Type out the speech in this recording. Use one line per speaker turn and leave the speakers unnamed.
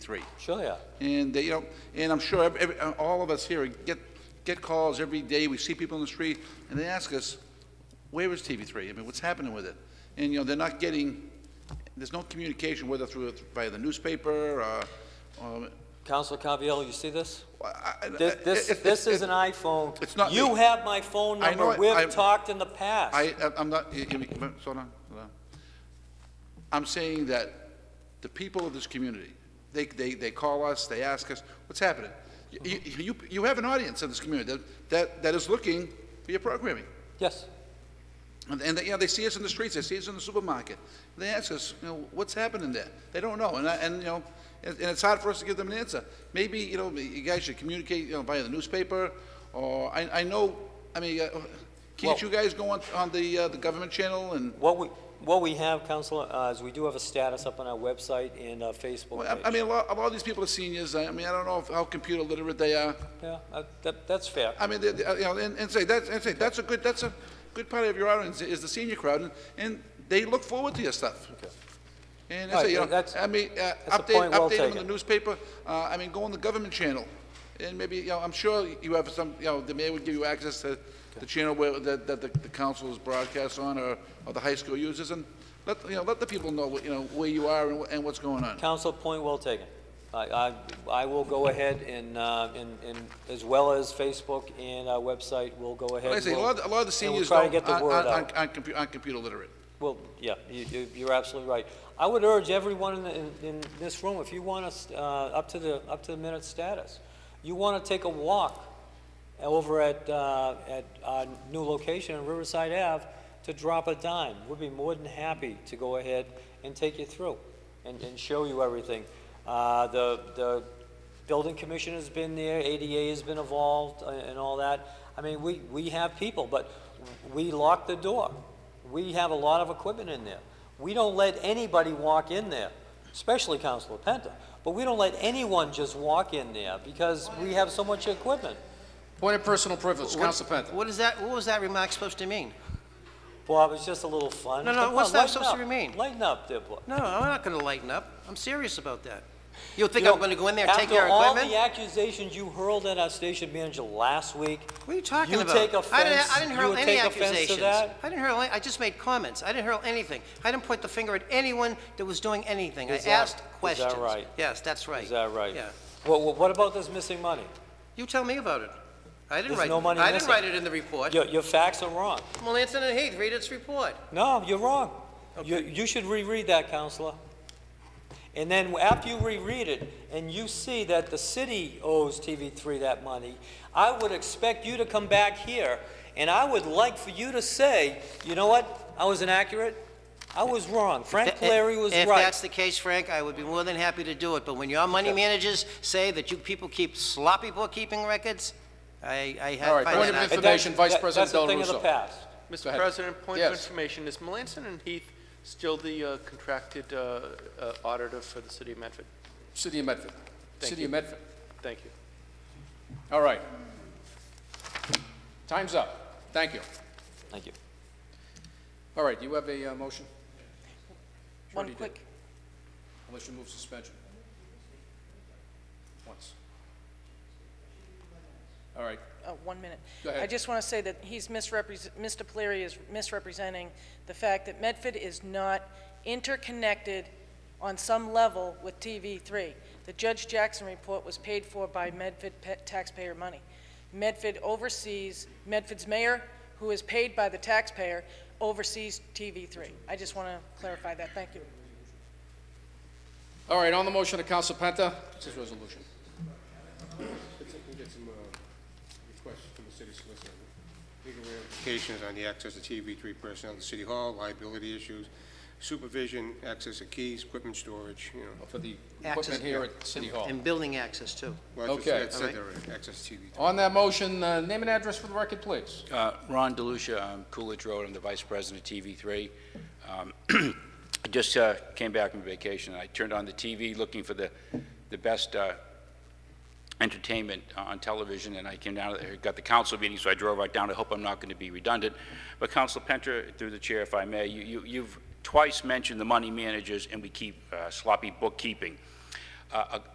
three.
Sure, yeah.
And they, you know, and I'm sure ev every, uh, all of us here get, get calls every day, we see people in the street, and they ask us, where is TV three? I mean, what's happening with it? And, you know, they're not getting, there's no communication, whether through, via the newspaper, or, or,
Counselor Caviello, you see this?
I- I-
This, this,
Uh, it- it-
this is
it-
an iPhone.
it's not
You
me.
have my phone
I know
number.
it. I-
We've talked in the past.
I, I- I'm not, you- you- but- hold on, hold on. I'm saying that the people of this community, they, they, they call us, they ask us, what's happening? You, you, you- you have an audience in this community that- that, that is looking for your programming.
Yes.
And, and, you know, they see us in the streets, they see us in the supermarket. They ask us, you know, what's happening there? They don't know, and, I- and, you know, and and it's hard for us to give them an answer. Maybe, you know, you guys should communicate, you know, via the newspaper, or, I, I know, I mean, uh, can't
Well-
you guys go on, on the, uh, the government channel and,
What we, what we have, Counselor, uh, is we do have a status up on our website and our
well,
Facebook
I- I
page.
mean, a lot, a lot of these people are seniors, I I mean, I don't know if- how computer literate they are.
Yeah, uh, that, that's fair.
I mean, they- they- uh, you know, and, and say, that's, and say, that's a good, that's a good part of your audience is the senior crowd, and, and they look forward to your stuff. And I
All
say,
right,
you
yeah,
know,
that's-
I mean, uh,
a
update,
point well
update them in the
taken.
newspaper, uh, I mean, go on the government channel, and maybe, you know, I'm sure you have some, you know, the mayor would give you access to the channel where, that, that the the council is broadcast on, or, or the high school uses, and let, you know, let the people know, what you know, where you are and wh- and what's going on.
Counsel, point well taken. I, I, I will go ahead and, uh, and, and as well as Facebook and our website, we'll go ahead.
Like I
and
say, a
we'll-
lot, of- a lot of the
and we'll
seniors
try to
don't,
get the
aren't,
word out.
aren't, aren't compu- aren't computer literate.
Well, yeah, you, you- you're absolutely right. I would urge everyone in, the- in, in this room, if you want us, uh, up to the, up to the minute status, you want to take a walk over at, uh, at our new location on Riverside Ave to drop a dime. We'd be more than happy to go ahead and take you through and, and show you everything. Uh, the, the building commission has been there, ADA has been involved uh, and all that. I mean, we, we have people, but we lock the door. We have a lot of equipment in there. We don't let anybody walk in there, especially Councilor Penta, but we don't let anyone just walk in there because we have so much equipment.
Point of personal privilege,
What-
Counsel Penta.
What is that, what was that remark supposed to mean?
Bob, it's just a little fun.
No, no,
Come
what's
on,
that
lighten
supposed to
up.
remain?
Lighten up, there, Bob.
No, I'm not gonna lighten up. I'm serious about that. You think
You
I'm
know,
gonna go in there and take your
After all the
equipment?
accusations you hurled at our station manager last week,
What are you talking
you
about?
take
I didn't-
offense-
I didn't hurl
you
any
take offense to
accusations.
that?
I didn't hurl, any- I just made comments. I didn't hurl anything. I didn't point the finger at anyone that was doing anything. I
Is that-
asked
is that
questions.
right?
Yes, that's right.
is that right?
Yeah.
Well, well, what about this missing money?
You tell me about it. I didn't
There's
write,
no money
I didn't
missing.
write it in the report.
Your, your facts are wrong.
Well, Anson and Heath, read its report.
No, you're wrong. You, you should reread that, Counselor. And then after you reread it and you see that the city owes TV3 that money, I would expect you to come back here and I would like for you to say, you know what? I was inaccurate. I was wrong. Frank
Th-
Larry was
If
right.
that's the case, Frank, I would be more than happy to do it, but when your money managers say that you people keep sloppy bookkeeping records, I, I
All
have...
right,
find
point
that
of
out.
And
information. Vice
that-
President Del
That's a thing
Russo.
of the past.
Go
Mr.
ahead.
President, point of
Yes.
information, is Melanson and Heath still the uh, contracted uh, uh, auditor for the city of Medford?
City of Medford.
Thank
City
you.
of Medford.
Thank you.
All right. Time's up. Thank you.
Thank you.
All right, you have a uh, motion,
One
Shorty did.
quick,
unless you move suspension. Once. All right,
uh, one minute.
Go ahead.
I just want to say that he's misrepresent, Mr. Polari is misrepresenting the fact that Medford is not interconnected on some level with TV3. The Judge Jackson report was paid for by Medford pa- taxpayer money. Medford oversees, Medford's mayor, who is paid by the taxpayer, oversees TV3. I just want to clarify that. Thank you.
all right, on the motion of Counsel Penta, it's his resolution.
I think we can get some uh, requests from the city solicitor. Legal ramifications on the access to TV3 personnel at City Hall, liability issues, supervision, access to keys, equipment storage, you know.
For the
Access-
equipment here at City Hall.
And building access, too.
Well, I just-
Okay.
I said there were access to TV3.
On that motion, uh, name and address for the record, please.
Uh, Ron DeLucia, um, Coolidge Road, I'm the Vice President of TV3. Um, I just uh, came back from vacation, I turned on the TV looking for the, the best uh, entertainment uh, on television, and I came down, I got the council meeting, so I drove right down, I hope I'm not going to be redundant. But Council Penter, through the chair, if I may, you- you- you've twice mentioned the money managers, and we keep uh, sloppy bookkeeping. Uh, a-